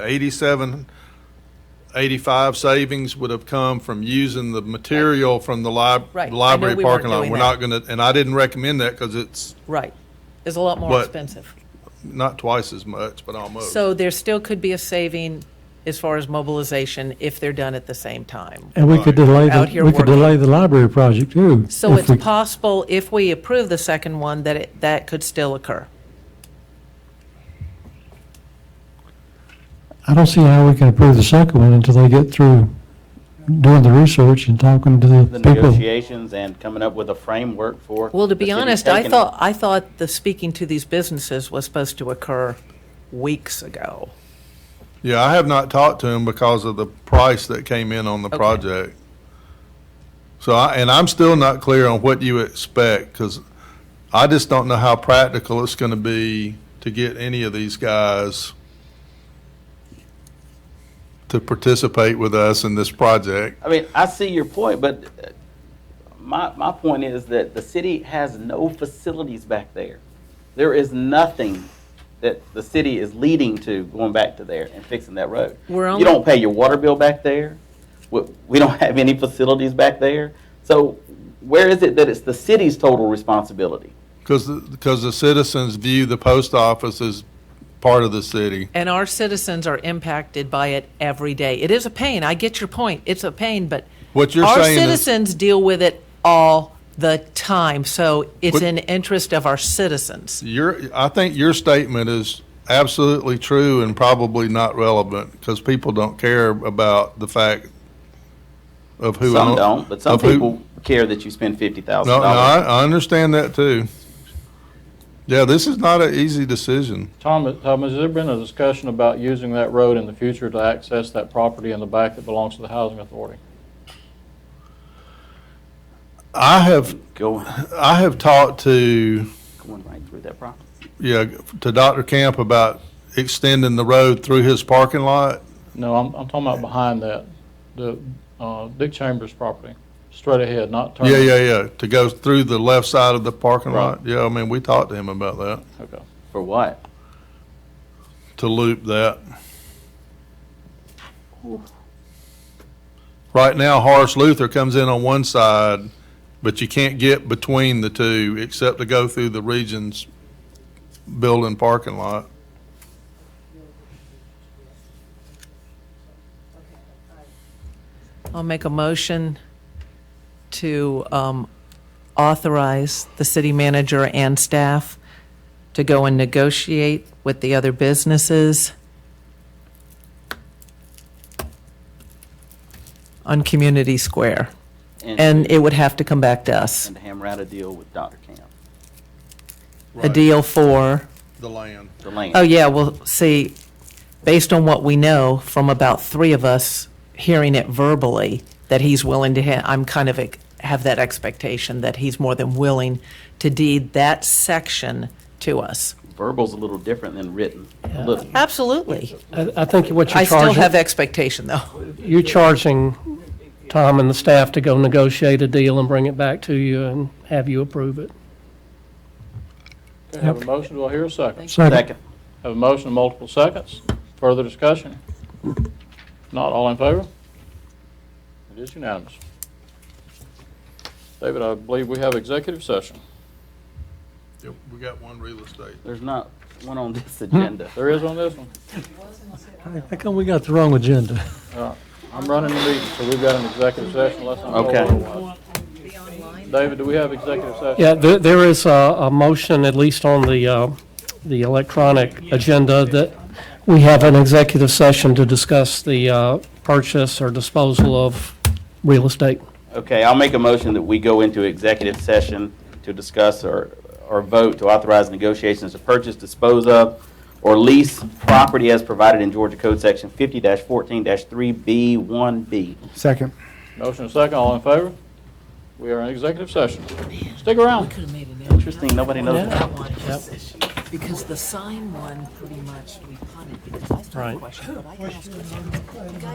87, 85 savings would have come from using the material from the lib- Right. I know library we weren't parking lot. doing We're that. not gonna, and I didn't recommend that because it's Right. It's a lot more But- expensive. not twice as much, but almost. So there still could be a saving as far as mobilization if they're done at the same time. And we could delay, Out the here we could working. delay the library project too. So if it's we- possible, if we approve the second one, that it, that could still occur. I don't see how we can approve the second one until they get through doing the research and talking to the the people. negotiations and coming up with a framework for. Well, to the be city honest, I taking it. thought, I thought the speaking to these businesses was supposed to occur weeks ago. Yeah, I have not talked to him because of the price that came in on the Okay. project. So I, and I'm still not clear on what you expect because I just don't know how practical it's gonna be to get any of these guys to participate with us in this project. I mean, I see your point, but uh, my, my point is that the city has no facilities back there. There is nothing that the city is leading to going back to there and fixing that road. We're You only- don't pay your water bill back there. We, we don't have any facilities back there. So where is it that it's the city's total responsibility? Because, because the citizens view the post office as part of the city. And our citizens are impacted by it every day. It is a pain. I get your point. It's a pain, but What you're our saying is- citizens deal with it all the time. So it's What- in interest of our citizens. Your, I think your statement is absolutely true and probably not relevant because people don't care about the fact of who. Some own- don't, but some of who- people care that you spend fifty thousand No, no, I, dollars. I understand that too. Yeah, this is not an easy decision. Tom, Tom, has there been a discussion about using that road in the future to access that property in the back that belongs to the housing authority? I have, Going, I have talked to, going right through that property. yeah, to Dr. Camp about extending the road through his parking lot. No, I'm, I'm talking about behind that, the, uh, Dick Chambers property, straight ahead, not Uh-huh. turning. Yeah, yeah, yeah, to go through the left side of the parking Right. lot. Yeah, I mean, we talked to him about that, Okay. For what? to loop that. Right now, Horace Luther comes in on one side, but you can't get between the two except to go through the Regions building parking lot. I'll make a motion to um, authorize the city manager and staff to go and negotiate with the other businesses on Community Square. And it would have to come back to us. and hammer out a deal with Dr. Camp, A deal for, The land. the land. oh yeah, well, see, based on what we know from about three of us hearing it verbally, that he's willing to, ha- I'm kind of, ex- have that expectation that he's more than willing to deed that section to us. Verbal's a little different than written. A little. Absolutely. I I think what I you're still have charging, expectation, though. you're charging Tom and the staff to go negotiate a deal and bring it back to you and have you approve it. Okay, Have a motion, do I hear a second? Second, Second. Have a motion, and multiple seconds, further discussion? Not all in favor? It is unanimous. David, I believe we have executive session. Yep, we got one real estate. There's not one on this Hmm. agenda. There is on this one. how come we got the wrong agenda? I'm running the meeting, so we've got an executive session unless I'm told Okay. otherwise. David, do we have executive session? Yeah, there, there is a, a motion, at least on the, uh, the electronic agenda, that we have an executive session to discuss the, uh, purchase or disposal of real estate. Okay, I'll make a motion that we go into executive session to discuss or, or vote to authorize negotiations to purchase, dispose of, or lease property as provided in Georgia Code Section fifty fourteen three B one B. Second. Motion and second, all in favor? We are in executive session. Stick around. Interesting, nobody knows Yeah. that. one position, because the sign one, pretty much, we punted, because I still have Right. a question, but I can ask you.